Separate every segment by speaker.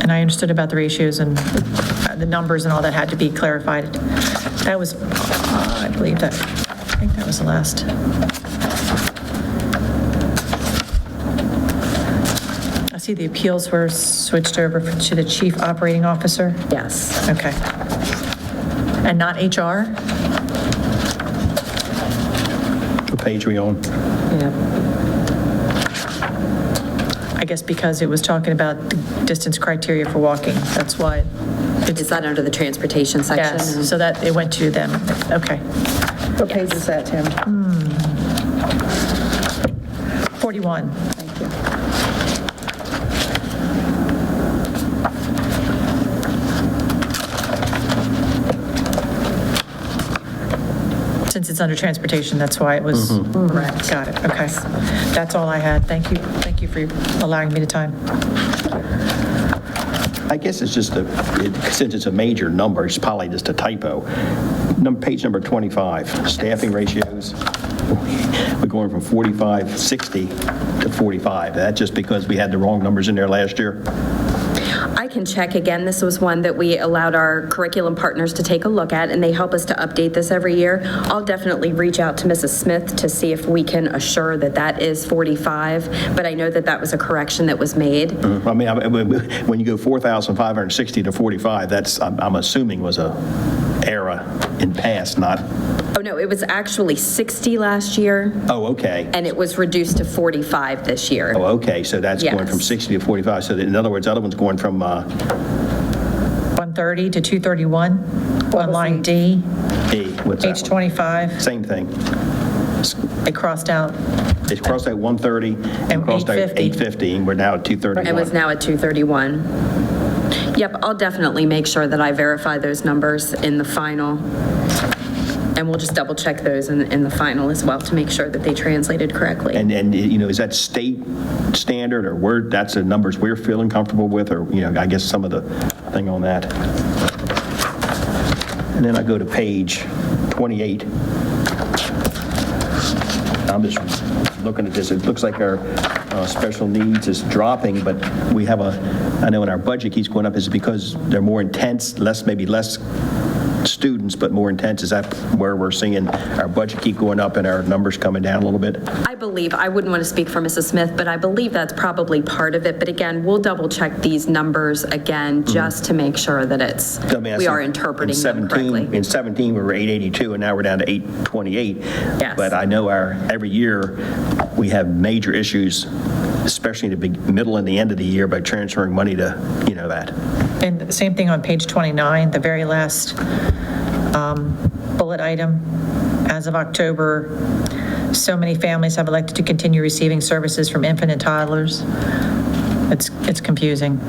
Speaker 1: and I understood about the ratios and uh, the numbers and all that had to be clarified. That was, uh, I believe that, I think that was the last. I see the appeals were switched over to the chief operating officer.
Speaker 2: Yes.
Speaker 1: Okay. And not HR?
Speaker 3: What page we on?
Speaker 2: Yeah.
Speaker 1: I guess because it was talking about the distance criteria for walking, that's why. it's-
Speaker 2: Is that under the transportation section?
Speaker 1: Yes, so that, it went to them, okay.
Speaker 4: What page is that, Tim?
Speaker 1: 41,
Speaker 4: Thank you.
Speaker 1: since it's under transportation, that's why it was. Correct. Got it, okay. That's all I had, thank you, thank you for allowing me the time.
Speaker 3: I guess it's just a, it- since it's a major number, it's probably just a typo. Num- Page number 25, staffing ratios. We're going from 45, 60 to 45. That's just because we had the wrong numbers in there last year.
Speaker 2: I can check again. This was one that we allowed our curriculum partners to take a look at, and they help us to update this every year. I'll definitely reach out to Mrs. Smith to see if we can assure that that is 45, but I know that that was a correction that was made.
Speaker 3: I mean, I- I- when you go 4,560 to 45, that's, I'm I'm assuming was a error in past, not,
Speaker 2: Oh, no, it was actually 60 last year,
Speaker 3: oh, okay.
Speaker 2: and it was reduced to 45 this year.
Speaker 3: Oh, okay, so that's going from
Speaker 2: Yes.
Speaker 3: 60 to 45. So that- in other words, the other one's going from uh,
Speaker 1: 130 to 231, on line D,
Speaker 3: D, what's that
Speaker 1: page
Speaker 3: one?
Speaker 1: 25,
Speaker 3: Same thing.
Speaker 1: it crossed out,
Speaker 3: It crossed at 130 and
Speaker 1: And
Speaker 3: crossed at
Speaker 1: 850.
Speaker 3: 850, and we're now at 231.
Speaker 2: It was now at 231. Yep, I'll definitely make sure that I verify those numbers in the final. And we'll just double check those in, in the final as well to make sure that they translated correctly.
Speaker 3: And, and, you know, is that state standard, or where, that's the numbers we're feeling comfortable with, or, you know, I guess some of the thing on that. And then I go to page 28. I'm just looking at this, it looks like our uh, special needs is dropping, but we have a, I know in our budget keeps going up, is it because they're more intense, less, maybe less students, but more intense? Is that where we're seeing our budget keep going up and our numbers coming down a little bit?
Speaker 2: I believe, I wouldn't want to speak for Mrs. Smith, but I believe that's probably part of it. But again, we'll double check these numbers again, just to make sure that it's,
Speaker 3: I mean, I
Speaker 2: we
Speaker 3: said
Speaker 2: are
Speaker 3: Mm-hmm. in
Speaker 2: interpreting them
Speaker 3: 17
Speaker 2: correctly.
Speaker 3: In 17, we were 882, and now we're down to 828.
Speaker 2: Yes.
Speaker 3: But I know our, every year, we have major issues, especially the big, middle and the end of the year, by transferring money to, you know, that.
Speaker 1: and the same thing on page 29, the very last um, bullet item, as of October, so many families have elected to continue receiving services from infant and toddlers. It's, it's confusing.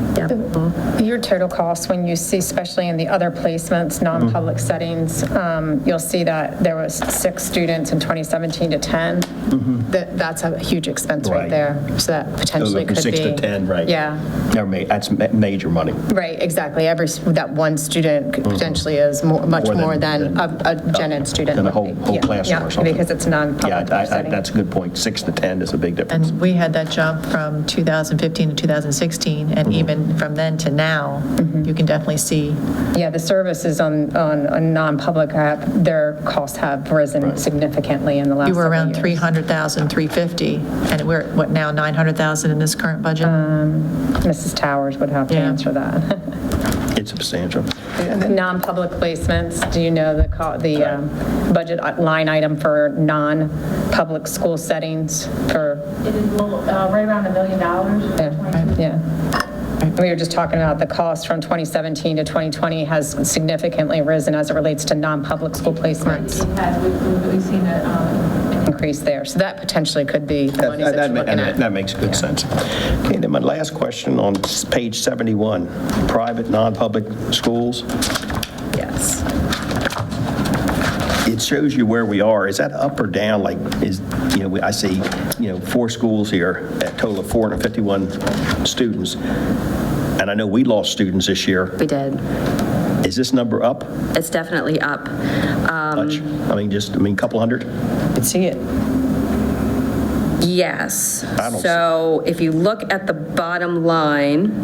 Speaker 5: Your total costs, when you see, especially in the other placements, non-public
Speaker 3: Mm-hmm.
Speaker 5: settings, um, you'll see that there was six students in 2017 to 10. That, that's a huge expense
Speaker 3: Mm-hmm. Right.
Speaker 5: right there. So that potentially
Speaker 3: From
Speaker 5: could be.
Speaker 3: Six to 10, right?
Speaker 5: Yeah,
Speaker 3: Never ma- That's ma- major money.
Speaker 5: right, exactly. Every, s- that one student could potentially is mo- much
Speaker 3: Mm-hmm. More than-
Speaker 5: more than a a gen ed student.
Speaker 3: than a
Speaker 5: would
Speaker 3: whole-
Speaker 5: be.
Speaker 3: whole
Speaker 5: Yeah,
Speaker 3: classroom or
Speaker 5: yeah,
Speaker 3: something.
Speaker 5: Because it's
Speaker 3: Yeah,
Speaker 5: non-public
Speaker 3: I- I-
Speaker 5: setting.
Speaker 3: that's a good point. Six to 10 is a big difference.
Speaker 1: And we had that jump from 2015 to 2016, and even from then to now, you can definitely see.
Speaker 5: Yeah, the services on, on, on non-public have, their costs have risen significantly in the last
Speaker 1: You were
Speaker 5: several
Speaker 1: around
Speaker 5: years.
Speaker 1: 300,000, 350, and we're, at, what, now 900,000 in this current budget?
Speaker 5: Mrs. Towers would have to
Speaker 1: Yeah.
Speaker 5: answer that.
Speaker 3: It's substantial.
Speaker 5: Non-public placements, do you know the, co- the um, budget line item for non-public school settings for?
Speaker 6: It is a little, uh, right around a million dollars.
Speaker 5: Yeah. We were just talking about the cost from 2017 to 2020 has significantly risen as it relates to non-public school placements
Speaker 6: It has, we've, we've seen a, um,
Speaker 5: increase there. So that potentially could be the
Speaker 3: That-
Speaker 5: money
Speaker 3: That
Speaker 5: that you're
Speaker 3: that ma-
Speaker 5: looking
Speaker 3: that- that
Speaker 5: at.
Speaker 3: makes good sense. Okay, then my last question on s- page 71, private, non-public schools.
Speaker 5: Yes.
Speaker 3: it shows you where we are. Is that up or down? Like, is, you know, we- I see, you know, four schools here, a total of 451 students. And I know we lost students this year.
Speaker 2: We did.
Speaker 3: Is this number up
Speaker 2: It's definitely up. Um,
Speaker 3: much? I mean, just, I mean, couple hundred?
Speaker 1: Could see it.
Speaker 2: Yes.
Speaker 3: don't see-
Speaker 2: So if you look at the bottom line,